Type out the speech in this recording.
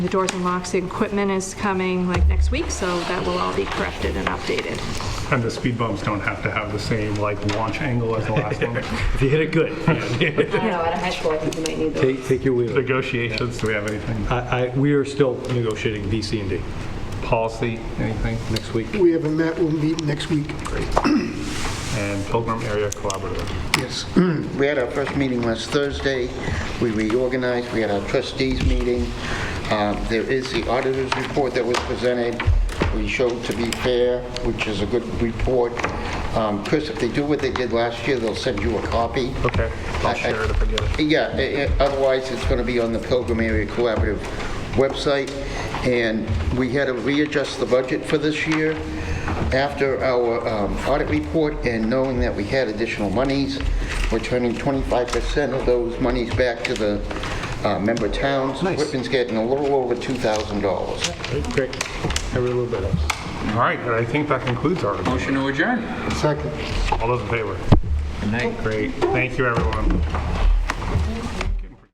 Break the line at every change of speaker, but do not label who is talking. The doors and locks, the equipment is coming like next week, so that will all be corrected and updated.
And the speed bumps don't have to have the same like launch angle as the last one.
If you hit it good.
I don't know, at a high school, I think you might need those.
Take, take your wheel.
Negotiations, do we have anything?
I, I, we are still negotiating B, C, and D
Policy, anything?
next week.
We haven't met, we'll meet next week.
And Pilgrim Area Collaborative.
Yes.
We had our first meeting last Thursday. We reorganized, we had our trustees meeting. Um, There is the auditor's report that was presented. We showed to be fair, which is a good report. Um, Chris, if they do what they did last year, they'll send you a copy.
Okay, I'll share it if I get it.
Yeah, i- i- otherwise it's going to be on the Pilgrim Area Collaborative website. And we had to readjust the budget for this year after our um, audit report and knowing that we had additional monies. We're turning 25% of those monies back to the uh, member towns.
Nice.
Whitman's getting a little over $2,000.
Great. Every little bit helps.
All right, and I think that concludes our,
Motion to adjourn.
Second.
all those in favor?
Good night.
Great, thank you, everyone.